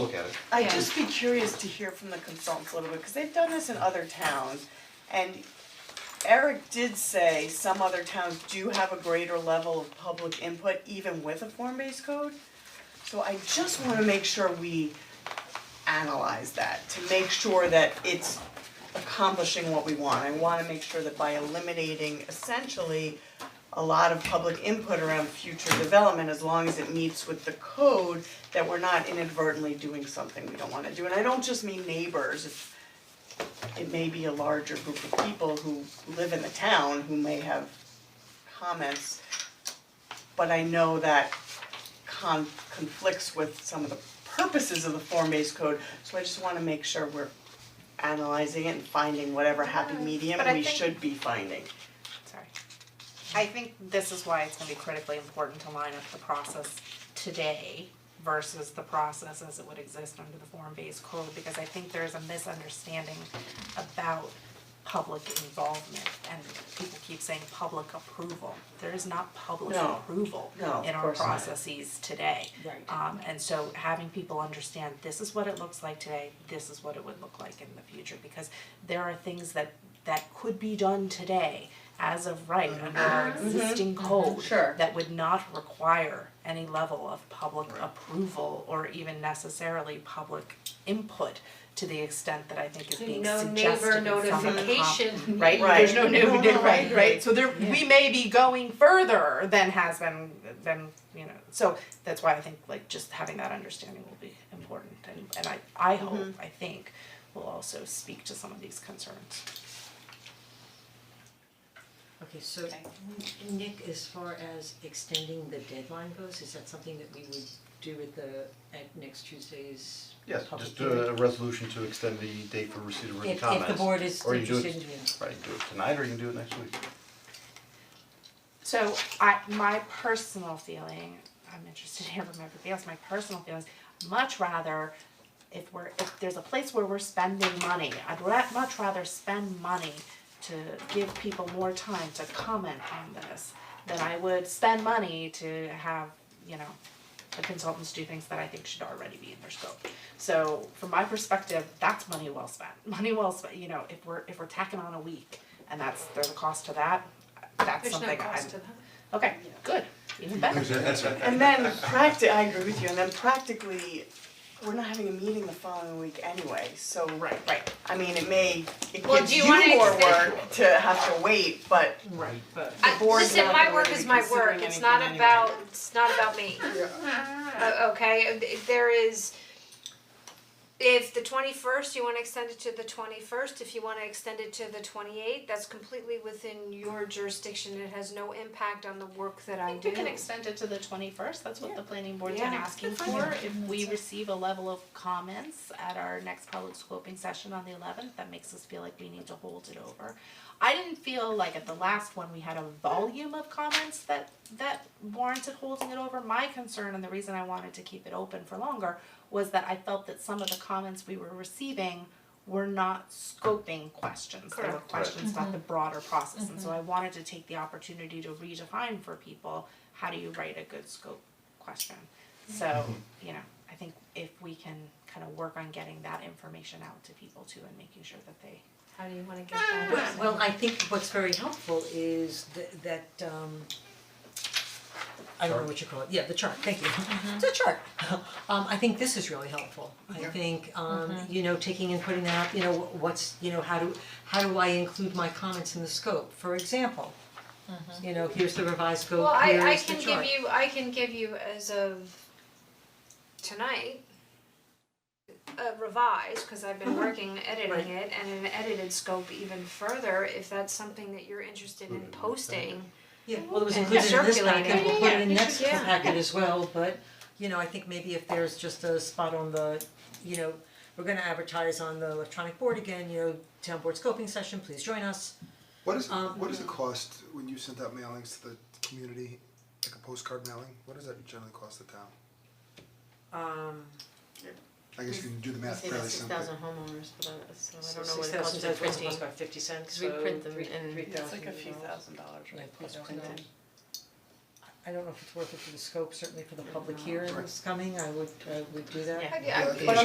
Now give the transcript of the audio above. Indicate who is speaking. Speaker 1: look at it.
Speaker 2: Oh,
Speaker 3: I'd just be curious to hear from the consultants a little bit, because they've done this in other towns. And Eric did say some other towns do have a greater level of public input even with a form-based code. So I just wanna make sure we analyze that, to make sure that it's accomplishing what we want. I wanna make sure that by eliminating essentially a lot of public input around future development, as long as it meets with the code, that we're not inadvertently doing something we don't wanna do, and I don't just mean neighbors. It's- It may be a larger group of people who live in the town who may have comments. But I know that con- conflicts with some of the purposes of the form-based code, so I just wanna make sure we're analyzing it and finding whatever happy medium
Speaker 4: but I
Speaker 3: we
Speaker 4: think-
Speaker 3: should be finding.
Speaker 4: Sorry. I think this is why it's gonna be critically important to line up the process today versus the process as it would exist under the form-based code, because I think there's a misunderstanding about public involvement, and people keep saying public approval. There is not public
Speaker 3: No.
Speaker 4: approval
Speaker 3: No, of
Speaker 4: in our
Speaker 3: course not.
Speaker 4: processes today. Um, and so having people understand, this is what it looks like today, this is what it would look like in the future, because there are things that, that could be done today as of right
Speaker 5: Mm-hmm.
Speaker 4: under our existing code
Speaker 3: Sure.
Speaker 4: that would not require any level of public approval or even necessarily public input to the extent that I think is being
Speaker 5: No
Speaker 4: suggested
Speaker 5: neighbor
Speaker 4: in some of the com-
Speaker 5: notification.
Speaker 4: right?
Speaker 3: Right.
Speaker 4: There's no new,
Speaker 5: No, no,
Speaker 4: right,
Speaker 5: no.
Speaker 4: right? So there, we may be going further than has been, than, you know, so that's why I think like just having that understanding will be important and, and I, I hope, I think, will also speak to some of these concerns.
Speaker 2: Okay, so Nick, as far as extending the deadline goes, is that something that we would do at the, at next Tuesday's
Speaker 1: Yes,
Speaker 2: public
Speaker 1: just do
Speaker 2: hearing?
Speaker 1: a resolution to extend the date for receipt of written
Speaker 2: If- if the
Speaker 1: comments.
Speaker 2: board is
Speaker 1: Or you do it-
Speaker 2: interested, yeah.
Speaker 1: Right, you do it tonight or you can do it next week.
Speaker 4: So I, my personal feeling, I'm interested to hear from everybody else, my personal feelings, much rather if we're, if there's a place where we're spending money, I'd ra- much rather spend money to give people more time to comment on this than I would spend money to have, you know, the consultants do things that I think should already be in their scope. So from my perspective, that's money well spent, money well spent, you know, if we're, if we're tacking on a week and that's, there's a cost to that, that's
Speaker 5: There's
Speaker 4: something
Speaker 5: no
Speaker 4: I'm.
Speaker 5: cost to that.
Speaker 4: Okay, good, even better.
Speaker 3: And then practi- I agree with you, and then practically, we're not having a meeting the following week anyway, so.
Speaker 4: Right, right,
Speaker 3: I mean, it may, it
Speaker 5: Well,
Speaker 3: gives
Speaker 5: do you
Speaker 3: you
Speaker 5: wanna
Speaker 3: more
Speaker 5: extend-
Speaker 3: work to have to wait, but
Speaker 2: Right, but.
Speaker 5: I-
Speaker 3: board's
Speaker 5: Listen,
Speaker 3: not
Speaker 5: my
Speaker 3: gonna
Speaker 5: work
Speaker 3: really
Speaker 5: is
Speaker 3: be
Speaker 5: my work,
Speaker 3: considering
Speaker 5: it's not
Speaker 3: anything
Speaker 5: about,
Speaker 3: anyway.
Speaker 5: it's not about me. O- Okay, if there is, if the twenty-first, you wanna extend it to the twenty-first, if you wanna extend it to the twenty-eighth, that's completely within your jurisdiction, it has no impact on the work that
Speaker 4: I
Speaker 5: I
Speaker 4: think
Speaker 5: do.
Speaker 4: we can extend it to the twenty-first, that's what the planning board's been
Speaker 5: Yeah.
Speaker 4: asking for. If we receive a level of comments at our next public scoping session on the eleventh, that makes us feel like we need to hold it over. I didn't feel like at the last one, we had a volume of comments that, that warranted holding it over. My concern and the reason I wanted to keep it open for longer was that I felt that some of the comments we were receiving were not scoping questions, they were
Speaker 5: Correct.
Speaker 4: questions about the broader process, and so I wanted to take the opportunity to redefine for people, how do you write a good scope question? So, you know, I think if we can kind of work on getting that information out to people too and making sure that they
Speaker 5: How do you wanna get that?
Speaker 2: Well, I think what's very helpful is th- that um I don't know what you call it, yeah, the chart, thank you.
Speaker 5: Mm-hmm.
Speaker 2: It's a chart. Um I think this is really helpful. I think um
Speaker 5: Mm-hmm.
Speaker 2: you know, taking and putting that, you know, what's, you know, how do how do I include my comments in the scope, for example? You know, here's the revised
Speaker 5: Mm-hmm. Well,
Speaker 2: scope,
Speaker 5: I,
Speaker 2: here
Speaker 5: I
Speaker 2: is the
Speaker 5: can
Speaker 2: chart.
Speaker 5: give you, I can give you as of tonight, uh, revised, cause I've
Speaker 2: Mm-hmm.
Speaker 5: been working, editing it, and an edited scope even further, if that's something that you're interested in posting.
Speaker 2: Yeah, well, it was
Speaker 5: And
Speaker 2: included in this
Speaker 5: circulating.
Speaker 2: packet, we'll put it in
Speaker 4: Yeah, yeah,
Speaker 2: next
Speaker 5: yeah. Yeah.
Speaker 2: packet as well, but, you know, I think maybe if there's just a spot on the, you know, we're gonna advertise on the electronic board again, you know, town board scoping session, please join us.
Speaker 6: What is
Speaker 2: Um,
Speaker 6: what is the cost when you sent out mailings to the community, like a postcard mailing? What does that generally cost the town?
Speaker 2: Um,
Speaker 6: I guess you can do the math fairly simply.
Speaker 7: homeowners, but I, so
Speaker 2: so six thousand
Speaker 7: for
Speaker 2: dollars, what's cost about fifty cents,
Speaker 7: 'Cause we
Speaker 2: so
Speaker 7: print them
Speaker 2: three,
Speaker 7: and-
Speaker 2: three
Speaker 3: It's
Speaker 2: thousand
Speaker 3: like a few
Speaker 2: dollars.
Speaker 3: thousand dollars, right?
Speaker 2: Yeah, plus
Speaker 3: Plus
Speaker 2: printing.
Speaker 3: printing.
Speaker 2: I don't know if it's worth it for the scope, certainly for the public hearing that's coming, I would, I would do that.
Speaker 4: Yeah.
Speaker 5: I- I-
Speaker 6: Yeah, I think
Speaker 3: But